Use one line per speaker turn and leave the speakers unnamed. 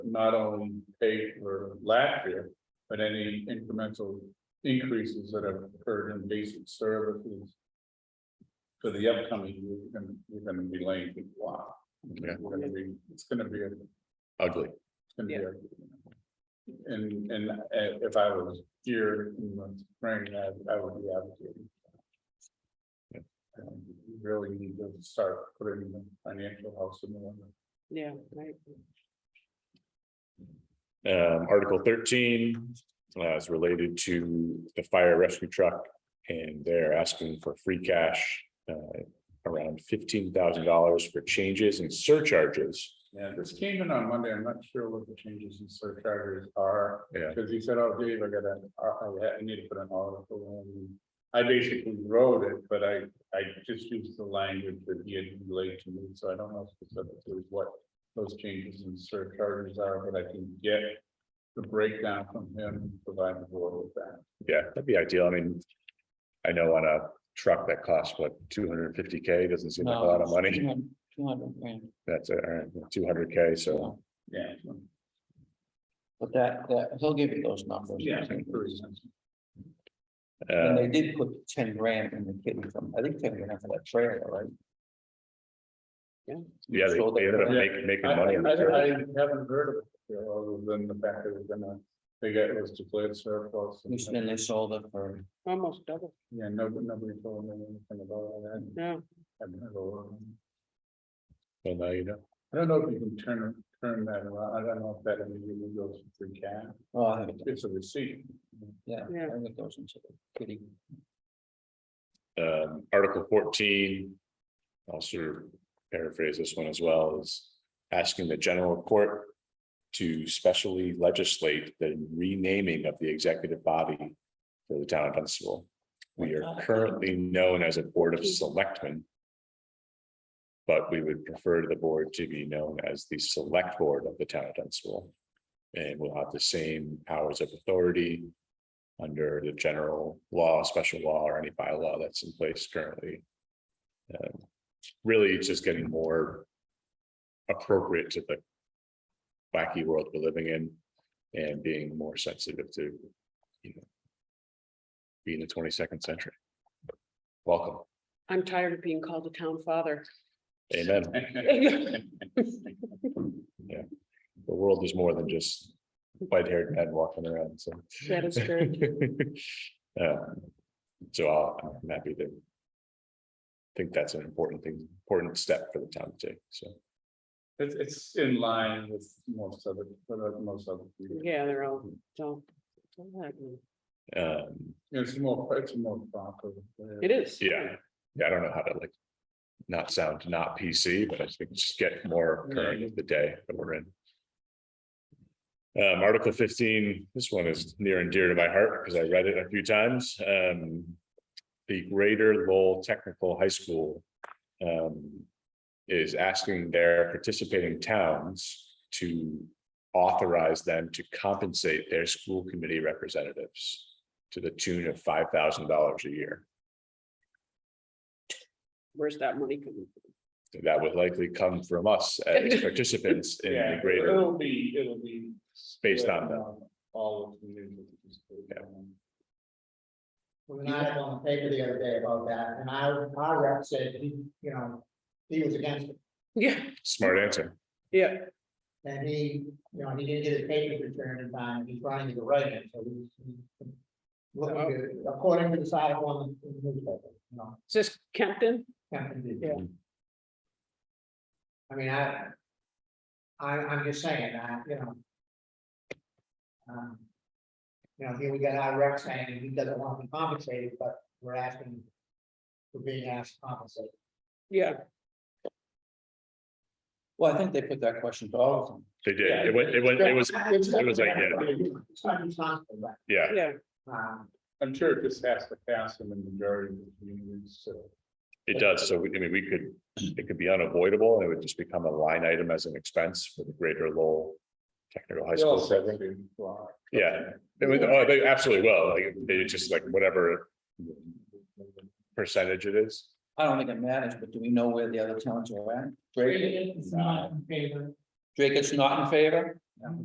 not only paid for last year, but any incremental increases that have occurred in basic services. For the upcoming, year, we're gonna, we're gonna be laying people off.
Yeah.
We're gonna be, it's gonna be a
ugly.
gonna be a- And, and uh, if I was here in the spring, I, I would be advocating.
Yeah.
Um, we Really need to start putting the financial house in the.
Yeah, right.
Um, article thirteen, uh, is related to the fire rescue truck. And they're asking for free cash, uh, around fifteen thousand dollars for changes and surcharges.
Yeah, this came in on Monday. I'm not sure what the changes in surcharges are,
Yeah.
because he said, oh, Dave, I gotta, I, I- I need to put an article in. I basically wrote it, but I, I just used the language that he had relayed to me, so I don't know specifically what those changes in surcharges are, but I can get the breakdown from him, and provide the board with that.
Yeah, that'd be ideal. I mean. I know on a truck that costs what, two hundred and fifty K, doesn't seem like a lot of money.
Two hundred grand,
That's uh, two hundred K, so.
Yeah.
but that, that, he'll give you those numbers.
Yeah. pretty sensible.
And
Uh,
they did put ten grand in the kitty fund, I think ten grand for that trailer, right?
yeah, they they ended up making,
I,
making
I
money. on the
I
trailer.
haven't heard of it, you know, other than the fact that it was gonna, they got, it was declared surplus. and-
And they sold it for,
Almost double,
Yeah, no, nobody told me anything about all that.
no,
I haven't heard a lot.
Well, now you know.
I don't know if you can turn, turn that around. I don't know if that immediately goes to free cash.
oh, I think,
It's a receipt.
yeah,
Yeah.
I think those into the kitty.
um, Article fourteen. I'll sort of paraphrase this one as well, is asking the general court. To specially legislate the renaming of the executive body for the town of Dunstable. We are currently known as a Board of Selectmen. But we would prefer the board to be known as the Select Board of the Town of Dunstable. And we'll have the same powers of authority under the general law, special law, or any bylaw that's in place currently. Um, Really, it's just getting more appropriate to the wacky world we're living in and being more sensitive to, you know, being the twenty-second century. Welcome.
I'm tired of being called a town father.
Amen. The world is more than just white-haired men walking around, so.
That is true.
Uh, So I'll- I'm happy to. Think that's an important thing, important step for the town to take, so.
It's, it's in line with most of it, but uh, most of it.
Yeah, they're all, so. It
um,
It's more, it's more proper.
is.
Yeah, yeah, I don't know how to like. Not sound not PC, but I think just get more current of the day that we're in. Um, Article fifteen, this one is near and dear to my heart because I read it a few times. Um. The Greater Lowell Technical High School. Um. Is asking their participating towns to authorize them to compensate their school committee representatives. To the tune of five thousand dollars a year.
Where's that money coming?
that would likely come from us as participants in the
Yeah,
greater,
it'll be, it'll be.
Based on that.
All of the.
Yeah.
When I was on the paper the other day about that, and I, our rep said, he, you know, he was against it,
Yeah,
smart answer.
yeah,
and he, you know, he didn't get his papers returned in time, he's running to the right, end, so he's. he's Looking good, according to the side of one in the newspaper, you know,
is this Kempton?
Hampton did.
Yeah.
I mean, I. I, I'm just saying, I, you know. um, You know, here we got our rep saying he doesn't want to be compensated, but we're asking. For being asked to compensate.
Yeah,
Well, I think they put that question to all of them.
They did. It was, it was, it was, it was like, yeah.
It's not responsible, but,
yeah,
yeah,
um,
I'm sure it just has to pass in the majority of the communities, so.
it does. So we- I mean, we could, it could be unavoidable. and It would just become a line item as an expense for the greater Lowell Technical High
They all
School.
said
program.
they apply.
Yeah. It would- oh, They absolutely will. Like, they just like whatever percentage it is.
I don't think it matters, but do we know where the other towns are at? Drake,
It's not in favor.
Drake is not in favor?